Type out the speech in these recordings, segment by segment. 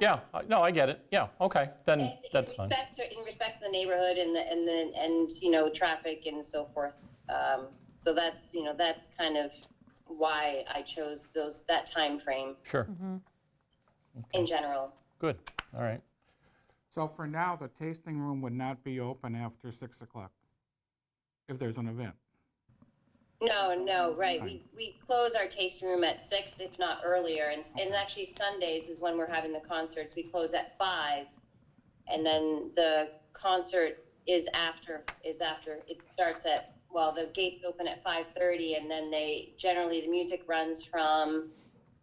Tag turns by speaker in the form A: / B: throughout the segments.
A: Yeah, I- no, I get it. Yeah, okay,
B: I
A: then
B: think
A: Mm, that's fine.
B: In respect to, in respect to the neighborhood and the, and the, and, you know, traffic and so forth. Um, so that's, you know, that's kind of why I chose those, that time frame
A: Sure,
B: in general.
A: good, all right.
C: So for now, the tasting room would not be open after 6 o'clock if there's an event.
B: No, no, right. We, we close our tasting room at six, if not earlier. And, and actually Sundays is when we're having the concerts. We close at five. And then the concert is after, is after, it starts at, well, the gates open at five thirty and then they, generally the music runs from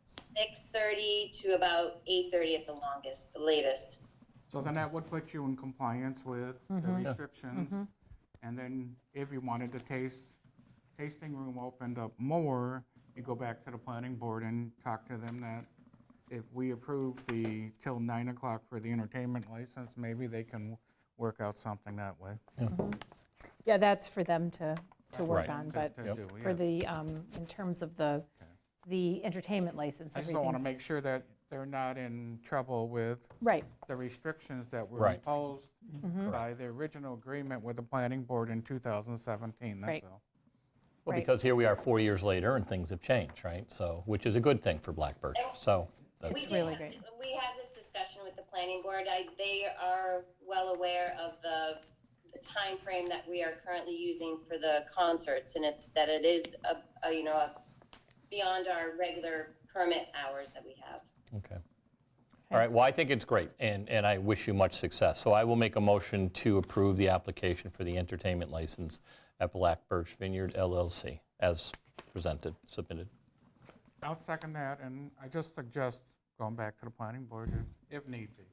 B: six thirty to about eight thirty at the longest, the latest.
C: So then that would put you in compliance with the
D: Mm-hmm.
C: restrictions. And then if you wanted the taste, tasting room opened up more, you go back to the planning board and talk to them that if we approve the till 9 o'clock for the entertainment license, maybe they can work out something that way.
D: Yeah, that's for them to, to work
A: Right.
D: on,
C: to-
D: but
C: to do,
D: for
C: yes.
D: the, um, in terms of the, the entertainment license,
C: I just don't want to
D: everything's-
C: make sure that they're not in trouble with
D: Right,
C: the restrictions that were
A: Right.
C: imposed
D: Mm-hmm.
C: by the original agreement with the planning board in 2017,
D: Right.
C: that's all.
A: Well,
D: Right.
A: because here we are four years later and things have changed, right? So, which is a good thing for Black Birch, so. that's-
B: We did
D: really
B: have-
D: great.
B: We had this discussion with the planning board. I, they are well aware of the the timeframe that we are currently using for the concerts, and it's that it is a, a, you know, a beyond our regular permit hours that we have.
A: Okay. All right, well, I think it's great, and, and I wish you much success. So I will make a motion to approve the application for the entertainment license at Black Birch Vineyard LLC as presented, submitted.
C: I'll second that, and I just suggest going back to the planning board if if need be.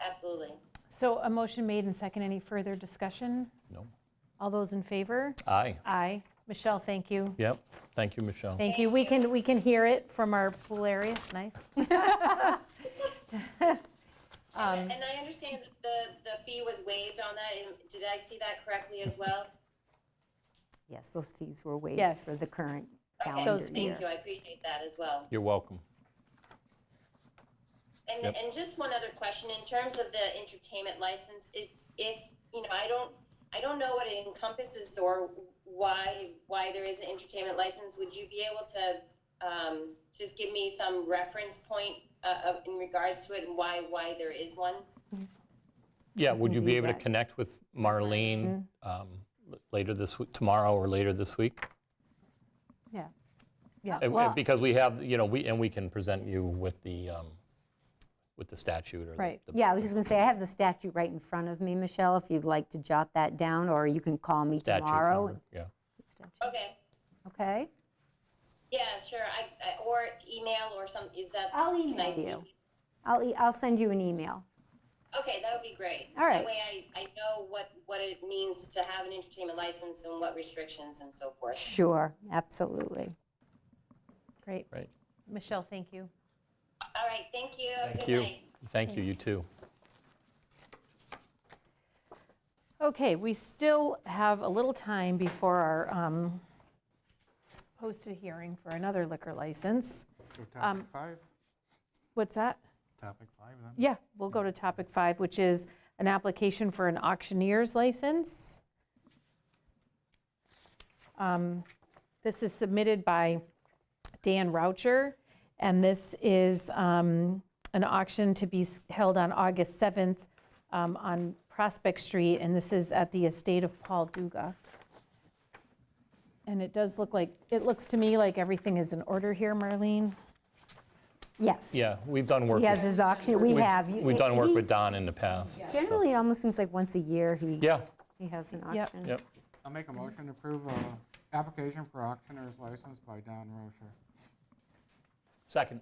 B: Absolutely.
D: so a motion made and second, any further discussion?
A: No.
D: All those in favor?
A: Aye,
D: Aye. Michelle, thank you.
A: yep, thank you, Michelle.
D: Thank you, we can, we can hear it from our pool area, nice. Um,
B: And and I understand that the, the fee was waived on that, and did I see that correctly as well?
E: Yes, those fees were waived
D: Yes.
E: for the current
B: Okay,
E: calendar
D: Those
E: year.
B: Thank you, I appreciate that as well.
A: You're welcome.
B: And,
A: Yep.
B: and just one other question, in terms of the entertainment license, is if, you know, I don't, I don't know what it encompasses or why, why there is an entertainment license, would you be able to, um, just give me some reference point, uh, of, in regards to it and why, why there is one?
A: Yeah, would
E: can
A: you be
E: do
A: able to
E: that. Mm-hmm.
A: connect with Marlene um, l- later this, w- tomorrow or later this week?
E: Yeah.
D: Yeah.
A: And- and
E: Well-
A: Because we have, you know, we, and we can present you with the, um, with the statute or the-
D: Right.
A: the
E: Yeah, I was just going to say, I have the statute right in front of me, Michelle, if you'd like to jot that down, or you can call me
A: statute
E: tomorrow.
A: number.
E: and-
A: Yeah.
B: Okay,
E: Okay?
B: yeah, sure, I, I, or email or some, is that?
E: I'll
B: can I
E: email you. I'll, e- I'll send you an email.
B: Okay, that would be great.
E: All right.
B: That way I, I know what, what it means to have an entertainment license and what restrictions and so forth.
E: Sure, absolutely.
D: Great,
A: Right.
D: Michelle, thank you.
B: All right, thank you. Have a
A: Thank
B: good
A: you.
B: night.
A: Thank you, you too.
D: Okay, we still have a little time before our um, posted hearing for another liquor license.
C: So
D: Um,
C: Topic five,
D: What's that?
C: topic five then.
D: Yeah, we'll go to topic five, which is an application for an auctioneer's license. Um, This is submitted by Dan Roucher, and this is um, an auction to be s- held on August 7th um, on Prospect Street, and this is at the estate of Paul Duga. And it does look like, it looks to me like everything is in order here, Marlene.
E: Yes.
A: Yeah, we've done work.
E: He has
A: with-
E: his auction, we
A: we've-
E: have. You-
A: We've done work
E: he-
A: with Don in the past. so-
E: Generally, it almost seems like once a year, he,
A: Yeah,
E: he has an
D: Yep.
E: auction.
A: yep.
C: I'll make a motion to approve a application for auctioneer's license by Don Rocher.
A: Second.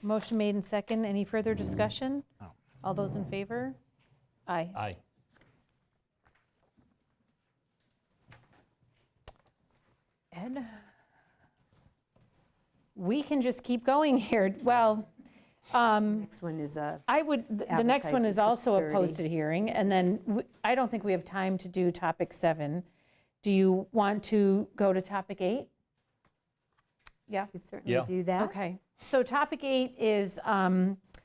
D: Motion made and second. Any further discussion? All those in favor? Aye.
A: Aye.
D: Ed? We can just keep going here. Well,
E: Next one is uh, a,
D: I would, th- the next one is
E: Advertise at
D: also a
E: 6:30.
D: posted hearing, and then w- I don't think we have time to do topic seven. Do you want to go to topic eight? Yeah?
E: we
A: Yeah.
E: certainly do that.
D: Okay, so topic eight is um,